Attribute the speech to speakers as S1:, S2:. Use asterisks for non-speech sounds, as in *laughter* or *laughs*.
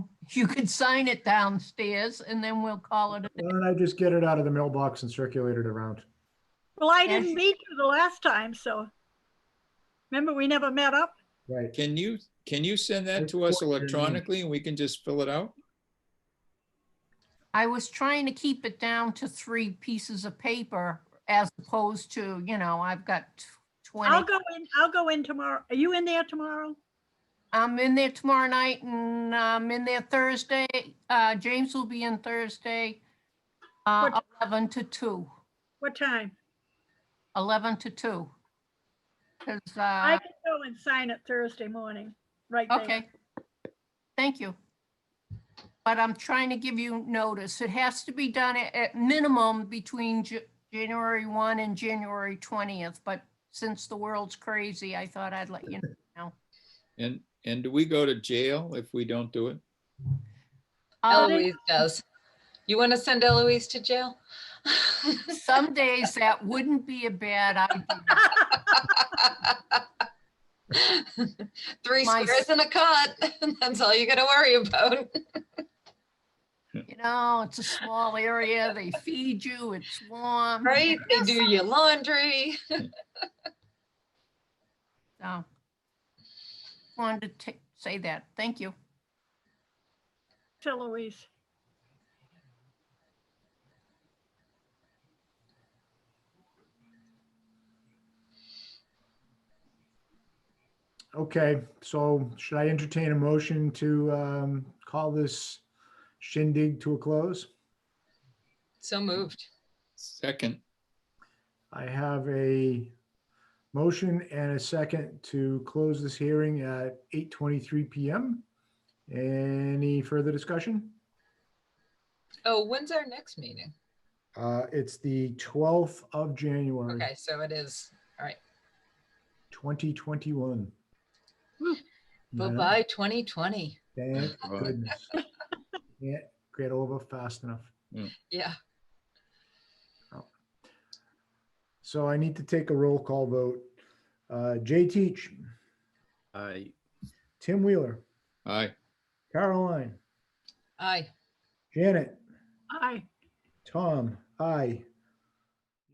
S1: You could sign it downstairs and then we'll call it. a
S2: Why don't I just get it out of the mailbox and circulate it around?
S3: Well, I
S1: Yeah, she-
S3: didn't meet you the last time, so. Remember, we never met up?
S2: Right.
S4: Can you, can you send that to us electronically and we can just fill it out?
S1: I was trying to keep it down to three pieces of paper as opposed to, you know, I've got tw-
S3: I'll
S1: twenty.
S3: go in, I'll go in tomorrow. Are you in there tomorrow?
S1: I'm in there tomorrow night and I'm in there Thursday. Uh, James will be in Thursday. Uh,
S3: What-
S1: eleven to two,
S3: What time?
S1: eleven to two. Cause,
S3: I
S1: uh,
S3: can go and sign it Thursday morning, right there.
S1: okay. Thank you. But I'm trying to give you notice. It has to be done at, at minimum between Ja- January one and January twentieth. But since the world's crazy, I thought I'd let you know.
S4: And, and do we go to jail if we don't do it?
S1: I'll-
S5: Eloise does. You want to send Eloise to jail? *laughs*
S1: Um, Some days that wouldn't be a bad idea.
S5: Three
S1: My-
S5: squares and a cut. *laughs* That's all you got to worry about.
S1: You know, it's a small area. They feed you. It's warm.
S5: Right? They do your laundry.
S1: So wanted to ta- say that. Thank you.
S3: To Louise.
S2: Okay, so should I entertain a motion to um, call this shindig to a close?
S5: So moved.
S4: Second,
S2: I have a motion and a second to close this hearing at 8:23 PM. Any further discussion?
S5: Oh, when's our next meeting?
S2: Uh, It's the 12th of January,
S5: Okay, so it is.
S2: 2021.
S3: Woo.
S2: Yeah,
S5: Bye-bye 2020.
S2: Thank
S4: Bye.
S5: *laughs*
S2: goodness. Can't get over fast enough.
S5: Yeah.
S2: So I need to take a roll call vote. Uh, Jay Teach,
S6: I
S2: Tim Wheeler,
S4: aye.
S2: Caroline,
S5: Aye.
S2: Janet,
S3: Aye.
S2: Tom, I,